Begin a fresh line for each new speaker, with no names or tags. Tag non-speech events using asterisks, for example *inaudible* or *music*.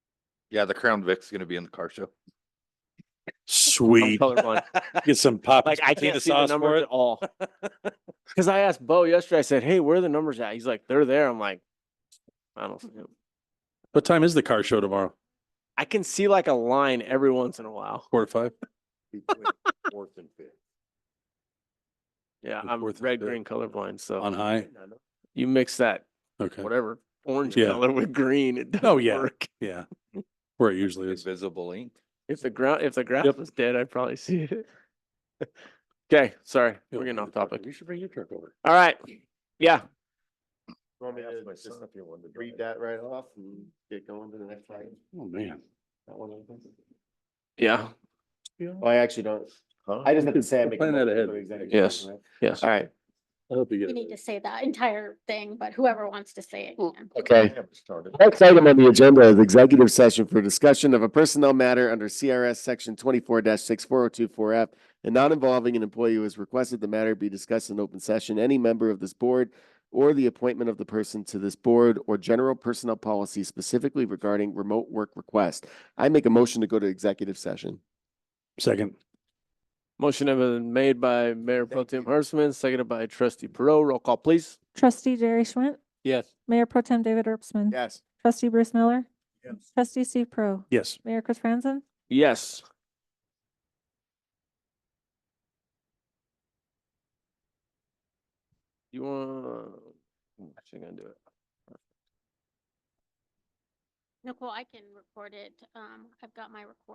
Yeah, the Crown Vic's gonna be in the car show.
Sweet. *laughs*
colorblind.
Get some pop.
Like I can't see the numbers at
*laughs*
all. Cause I asked Bo yesterday, I said, hey, where are the numbers at? He's like, they're there. I'm like, I don't see 'em."
What time is the car show tomorrow?
I can see like a line every once in a while.
Quarter to five?
*laughs* Fourth and fifth.
Yeah,
The
I'm
fourth and
red,
fifth.
green colorblind, so *laughs*
On high?
you mix that,
Okay.
Oh. whatever, orange
Yeah.
color with green, it
Oh,
doesn't
yeah.
work.
Yeah. Where it usually is.
Invisible ink.
If the ground, if the grass
Yep.
was dead, I'd probably see it. *laughs* Okay, sorry, *laughs* we're getting off topic.
You should bring your truck over.
All right, yeah,
Want me
Ask
to
my
just
son if he wanted to
read
drive.
that right off and get going to the next item?
Oh, man.
That one I think?
yeah,
Oh, I actually don't.
Huh?
I just have to say. I make a
Plan that
motion
ahead.
for executive
Yes.
session, right?
yes.
All right.
I hope you get
You
it.
need to say that entire thing, but whoever wants to say it. can.
I
Okay.
haven't started.
Next item on the agenda is executive session for discussion of a personnel matter under CRS section twenty-four six four oh two four F. And not involving an employee who has requested the matter be discussed in open session. Any member of this board or the appointment of the person to this board or general personnel policy specifically regarding remote work request. I make a motion to go to executive session.
Second.
Motion have been made by Mayor Pro Tem Hertzman, seconded by trustee Perot. Roll call, please.
Trustee Jerry Schwint,
Yes.
Mayor Pro Tem David Erpsman.
Yes.
Trustee Bruce Miller. Trustee Steve Pro,
Yes.
Mayor Chris Franzen.
Yes. You want, I'm actually gonna do it.
Nicole, I can record it. Um, I've got my record.